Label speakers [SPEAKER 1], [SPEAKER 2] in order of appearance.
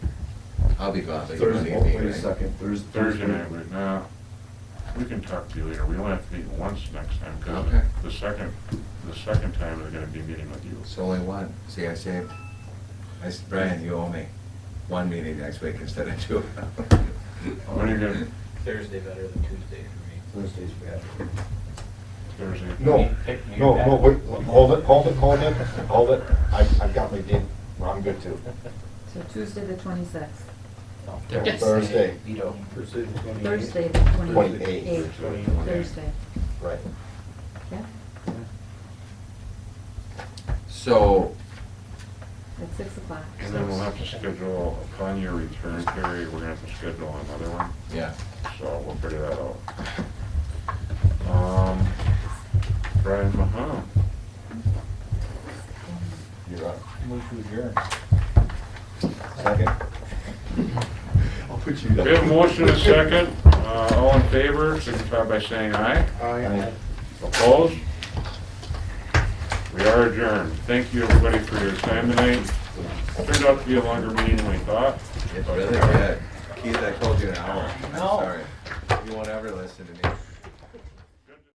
[SPEAKER 1] I'll be gone, so you don't
[SPEAKER 2] Thursday,
[SPEAKER 1] need me,
[SPEAKER 2] wait a
[SPEAKER 1] right?
[SPEAKER 2] second, Thurs-
[SPEAKER 3] Thursday
[SPEAKER 2] Thursday.
[SPEAKER 3] night, but now, we can talk to you later, we only have to meet once next time, because
[SPEAKER 1] Okay.
[SPEAKER 3] the second, the second time they're gonna be meeting with you.
[SPEAKER 1] It's only one, see, I saved, I s Brian, you owe me one meeting next week instead of two.
[SPEAKER 3] When are you gonna,
[SPEAKER 4] Thursday better than Tuesday for me.
[SPEAKER 2] Thursday's bad.
[SPEAKER 3] Thursday?
[SPEAKER 5] No, no, no, wait, hold it, hold it, hold it, hold it. I, I've got my date, well, I'm good too.
[SPEAKER 6] So Tuesday the twenty-sixth,
[SPEAKER 5] No, Thursday,
[SPEAKER 4] Veto.
[SPEAKER 2] Thursday the 28th.
[SPEAKER 6] Thursday the twenty-eighth,
[SPEAKER 5] Twenty-eighth.
[SPEAKER 6] Thursday,
[SPEAKER 5] right.
[SPEAKER 6] yeah,
[SPEAKER 1] So,
[SPEAKER 6] at six o'clock.
[SPEAKER 3] And then we'll have to schedule, upon your return, Terry, we're gonna have to schedule another one,
[SPEAKER 1] yeah,
[SPEAKER 3] so we'll figure that out. Um, Brian Mahon,
[SPEAKER 5] You're up.
[SPEAKER 4] Move to adjourn.
[SPEAKER 5] Second?
[SPEAKER 1] I'll put you down.
[SPEAKER 3] we have a motion and a second, uh, all in favor, signify by saying aye.
[SPEAKER 5] Aye.
[SPEAKER 3] Opposed? We are adjourned. Thank you, everybody, for your time tonight. Turned out to be a longer meeting than we thought.
[SPEAKER 1] It's really good. Keith, I told you an hour. I'm sorry. You won't ever listen to me.